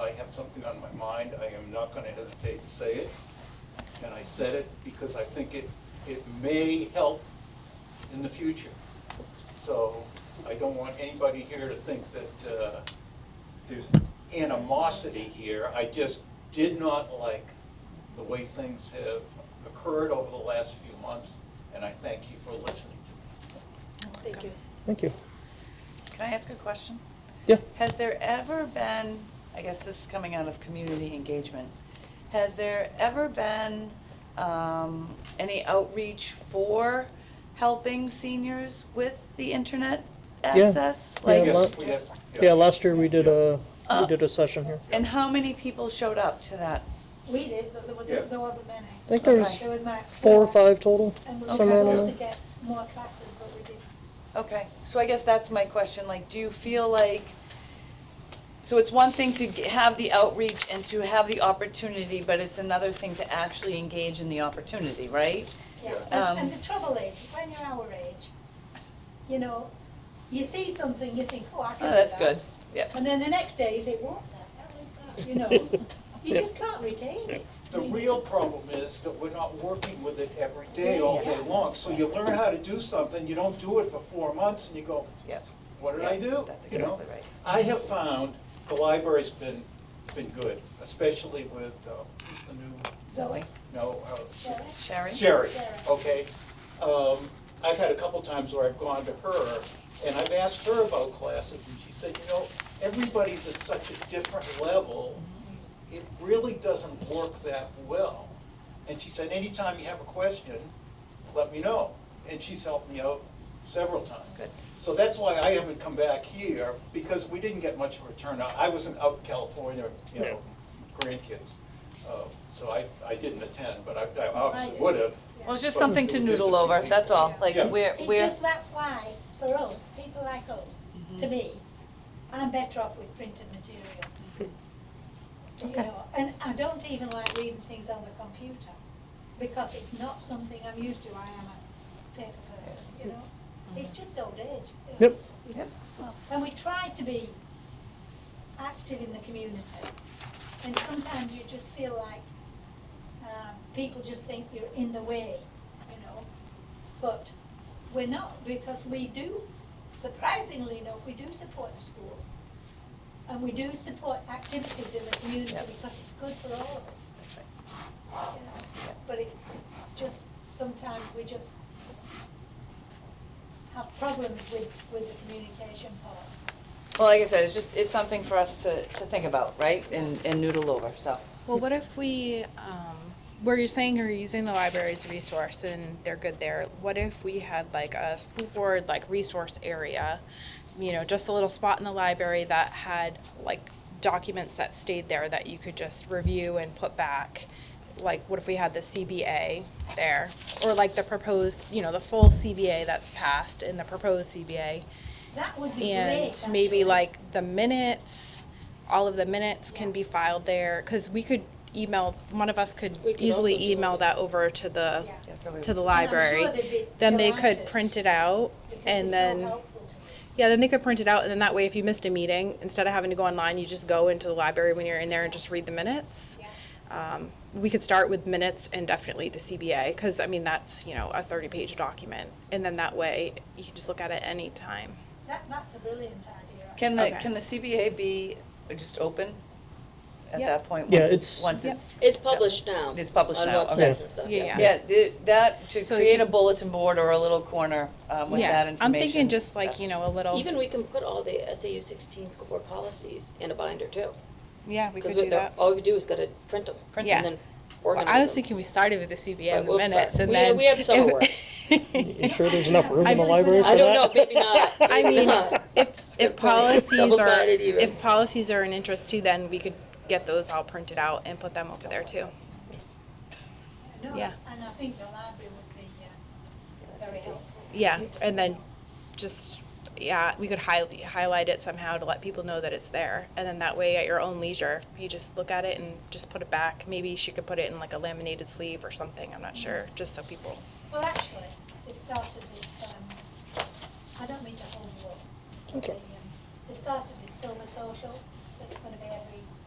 I have something on my mind, I am not gonna hesitate to say it. And I said it because I think it, it may help in the future. So I don't want anybody here to think that uh, there's animosity here. I just did not like the way things have occurred over the last few months, and I thank you for listening to me. Thank you. Thank you. Can I ask a question? Yeah. Has there ever been, I guess this is coming out of community engagement, has there ever been um, any outreach for helping seniors with the internet Yeah. access? Yeah, Like, lo- Yes, we have- Yeah, last year we did a, Uh, we did a session here. And how many people showed up to that? We did, but there Yeah. wasn't, there wasn't many. I think there Okay. was There was like. four or five total, And we were somewhere around supposed to there. get more classes, but we didn't. Okay, so I guess that's my question, like, do you feel like, so it's one thing to g- have the outreach and to have the opportunity, but it's another thing to actually engage in the opportunity, right? Yeah, Um, and, and the trouble is, when you're our age, you know, you see something, you think, oh, I can Oh, do that's that." good, yeah. And then the next day, you think, what the hell is that, you know? You just can't retain it. I The mean, real it's- problem is that we're not working with it every day, all day long. So you learn how to do something, you don't do it for four months, and you go, Yep. what did I do? That's You know? exactly right. I have found the library's been, been good, especially with, uh, who's the new, Zoe, no, uh, Zoe? Sherry? Sherry, Sherry. okay? Um, I've had a couple times where I've gone to her, and I've asked her about classes, and she said, you know, everybody's at such a different level, it really doesn't work that well. And she said, anytime you have a question, let me know. And she's helped me out several times. Good. So that's why I haven't come back here, because we didn't get much of a turnout. I wasn't out in California, you know, grandkids. Uh, So I, I didn't attend, but I- I obviously did. would have. Well, it's just But- something to noodle over, that's all, like, Yeah. we're, it's we're, just, that's why, for us, people like us, to Mm-hmm. me, I'm better off with printed material. You Okay. know, and I don't even like reading things on the computer, because it's not something I'm used to, I am a paper person, you know? It's just old age. you know. Yep. Mm-hmm. Yep. And we try to be active in the community, and sometimes you just feel like, um, people just think you're in the way, you know? But we're not, because we do, surprisingly enough, we do support the schools. And we do support activities in the community Yep. because it's good for all of us. you know. Yep. But it's it's just, sometimes we just have problems with, with the communication part. well, like I said, it's just, it's something for us to, to think about, right, and, and noodle over, so. Well, what if we, um, where you're saying you're using the library's resource and they're good there, what if we had like a school board, like resource area? You know, just a little spot in the library that had like documents that stayed there that you could just review and put back? Like, what if we had the CBA there? Or like the proposed, you know, the full CBA that's passed and the proposed CBA? That would be great, And actually. maybe like the minutes, all of the minutes can be filed there, because we could email, one of us could We could also easily do email it. that over to the, Yeah. Yeah, so we- to the And I'm sure they'd library. be Then they could delighted, print it out, because it's and so then, helpful to us. yeah, then they could print it out, and then that way, if you missed a meeting, instead of having to go online, you just go into the library when you're in there and just read the minutes. Yeah. Um, We could start with minutes and definitely the CBA, because I mean, that's, you know, a thirty-page document, and then that way, you can just look at it any time. That, that's a brilliant idea. actually. Can the, Okay. can the CBA be just open at Yep. that point, Yeah, once it's, it's- once it's It's published now. It's published on now, okay. websites and stuff. Yeah, yeah. Yeah, the, that, to So create you- a bulletin board or a little corner, um, with that information. I'm thinking just like, you that's- know, a little. Even we can put all the SAU sixteen school board policies in a binder too. yeah, we Because could do that. all we do is gotta print them. Print Yeah. And then Well, organize I was them. thinking we started with the CBA Right, in the we'll start. minutes, and We- then we have summer if- work. You sure there's enough room in the I library I for don't know, that? maybe not. I mean, Not. if good if point. policies are Double-sided even. if policies are an interest too, then we could get those all printed out and put them over there too. No, Yeah. And I think the library would be, uh, very helpful. Yeah, and then just yeah, we could highlight highlight it somehow to let people know that it's there, and then that way at your own leisure, you just look at it and just put it back. Maybe she could put it in like a laminated sleeve or something. I'm not sure, just so people. Well, actually, they've started this, um, I don't mean to hold you up. but they, Okay. um, They've started this summer social, that's gonna be every